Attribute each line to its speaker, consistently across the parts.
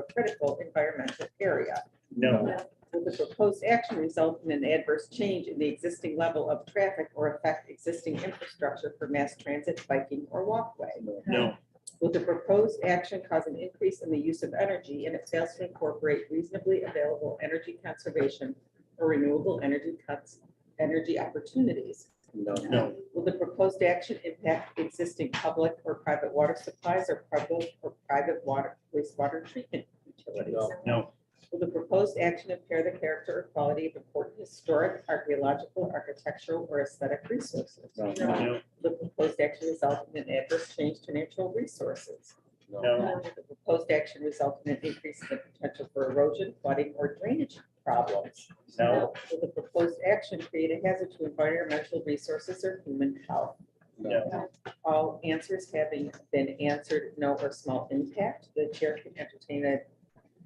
Speaker 1: critical environmental area.
Speaker 2: No,
Speaker 1: Will the proposed action result in an adverse change in the existing level of traffic or affect existing infrastructure for mass transit, biking, or walkway?
Speaker 2: no,
Speaker 1: Will the proposed action cause an increase in the use of energy and it fails to incorporate reasonably available energy conservation or renewable energy cuts, energy opportunities?
Speaker 3: No.
Speaker 2: no,
Speaker 1: Will the proposed action impact existing public or private water supplies or public or private water wastewater treatment utilities?
Speaker 3: No.
Speaker 2: no,
Speaker 1: Will the proposed action impair the character or quality of important historic, archaeological, architectural, or aesthetic resources?
Speaker 3: No.
Speaker 1: Will
Speaker 2: no,
Speaker 1: The proposed action result in an adverse change to natural resources?
Speaker 2: no,
Speaker 1: Will The proposed action result in an increase in the potential for erosion, flooding, or drainage problems?
Speaker 2: no,
Speaker 1: Will the proposed action create a hazard to environmental resources or human health?
Speaker 2: no,
Speaker 1: All answers having been answered, no or small impact, the chair can entertain a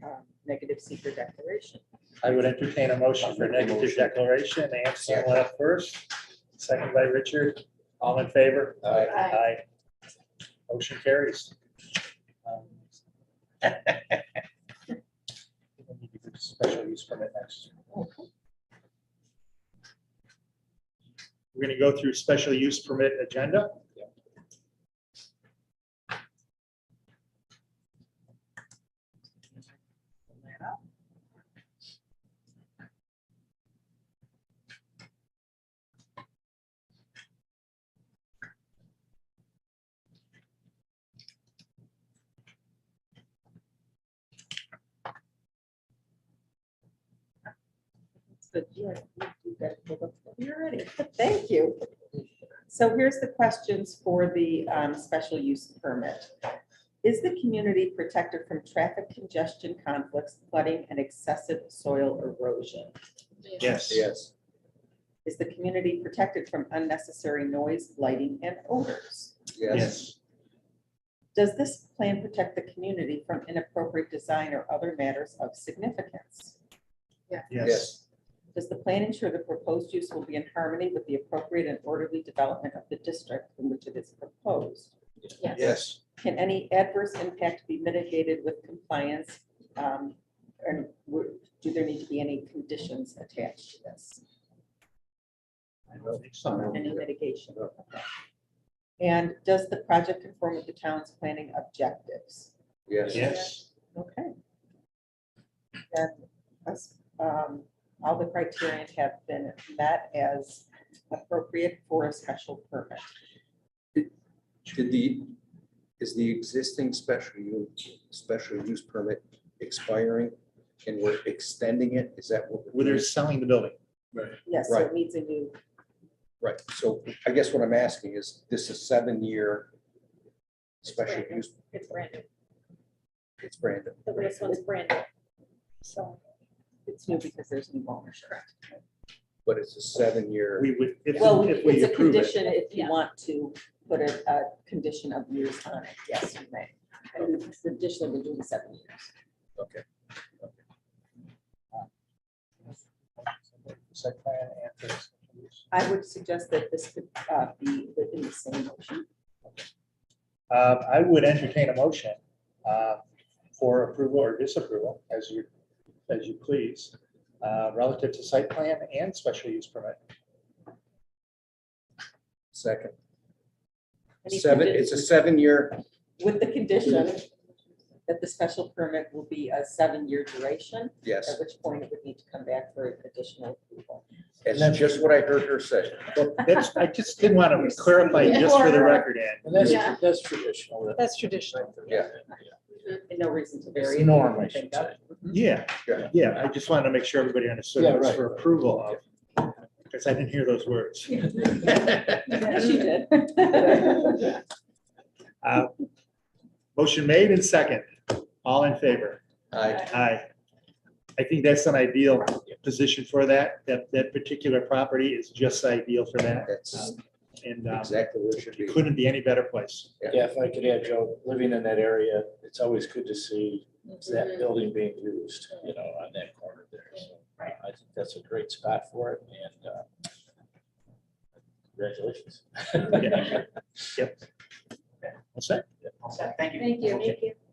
Speaker 1: um, negative secret declaration.
Speaker 2: I would entertain a motion for negative declaration. Anson left first, second by Richard. All in favor?
Speaker 3: Aye.
Speaker 2: Aye. Motion carries. Um, we need to get Special use permit next. We're gonna go through special use permit agenda.
Speaker 1: So, yeah, you- you got it pulled up. You're ready. Thank you. So here's the questions for the um, special use permit. Is the community protected from traffic congestion conflicts, flooding, and excessive soil erosion?
Speaker 2: Yes.
Speaker 3: Yes.
Speaker 1: Is the community protected from unnecessary noise, lighting, and odors?
Speaker 2: Yes.
Speaker 1: Does this plan protect the community from inappropriate design or other matters of significance?
Speaker 2: Yes.
Speaker 1: Does the plan ensure the proposed use will be in harmony with the appropriate and orderly development of the district in which it is proposed?
Speaker 3: Yes.
Speaker 1: Can any adverse impact be mitigated with compliance? um, And w- do there need to be any conditions attached to this,
Speaker 2: I don't think so.
Speaker 1: any mitigation? Okay. And does the project conform with the town's planning objectives?
Speaker 2: Yes.
Speaker 1: Okay. Then, us, um, all the criterion have been met as appropriate for a special permit.
Speaker 3: Did the, is the existing special u, special use permit expiring and we're extending it? Is that what?
Speaker 2: Well, they're selling the building.
Speaker 1: Yes, so it
Speaker 3: Right.
Speaker 1: needs a new,
Speaker 3: Right, so I guess what I'm asking is, this is seven-year special
Speaker 4: Right.
Speaker 3: use,
Speaker 4: It's brand new.
Speaker 3: it's branded.
Speaker 4: The last one's brand new. So,
Speaker 1: it's new because there's new ownership.
Speaker 3: but it's a seven-year.
Speaker 2: We would, if,
Speaker 1: Well,
Speaker 2: if we
Speaker 1: it's a
Speaker 2: approve it.
Speaker 1: condition if you
Speaker 4: Yeah.
Speaker 1: want to put a, a condition of years on it, yes, you may. And additionally, we're doing seven years.
Speaker 3: Okay.
Speaker 2: Site plan and for special use.
Speaker 1: I would suggest that this could uh, be within the same motion.
Speaker 2: Um, I would entertain a motion uh, for approval or disapproval, as you, as you please, uh, relative to site plan and special use permit.
Speaker 3: Second,
Speaker 1: Any
Speaker 3: seven,
Speaker 1: condi-
Speaker 3: it's a seven-year,
Speaker 1: With the condition that the special permit will be a seven-year duration, at
Speaker 3: yes,
Speaker 1: which point it would need to come back for additional approval.
Speaker 3: that's just what I heard her say.
Speaker 2: Well, That's, I just did want to clarify just for the record, Ann.
Speaker 5: And that's,
Speaker 4: Yeah.
Speaker 5: that's traditional. That's traditional.
Speaker 3: Yeah.
Speaker 1: And no reason to
Speaker 5: It's
Speaker 1: vary.
Speaker 5: the
Speaker 1: it.
Speaker 5: norm, I should
Speaker 1: Think of-
Speaker 5: say.
Speaker 2: Yeah,
Speaker 3: Yeah.
Speaker 2: yeah, I just wanted to make sure everybody understood
Speaker 5: Yeah,
Speaker 2: it was
Speaker 5: right.
Speaker 2: for approval of, because I didn't hear those words.
Speaker 1: Yes, you did.
Speaker 2: Uh, Motion made and second. All in favor?
Speaker 3: I,
Speaker 2: Aye. I think that's an ideal position for that. That, that particular property is just ideal for that.
Speaker 3: that's
Speaker 2: And um,
Speaker 3: exactly what it should be.
Speaker 2: it couldn't be any better place.
Speaker 5: Yeah, if I could add, Joe, living in that area, it's always good to see that building being used, you know, on that corner there. So uh, I think that's a great spot for it and uh, congratulations.
Speaker 2: What's that?
Speaker 4: thank you.
Speaker 2: Okay.
Speaker 4: you.
Speaker 2: Uh,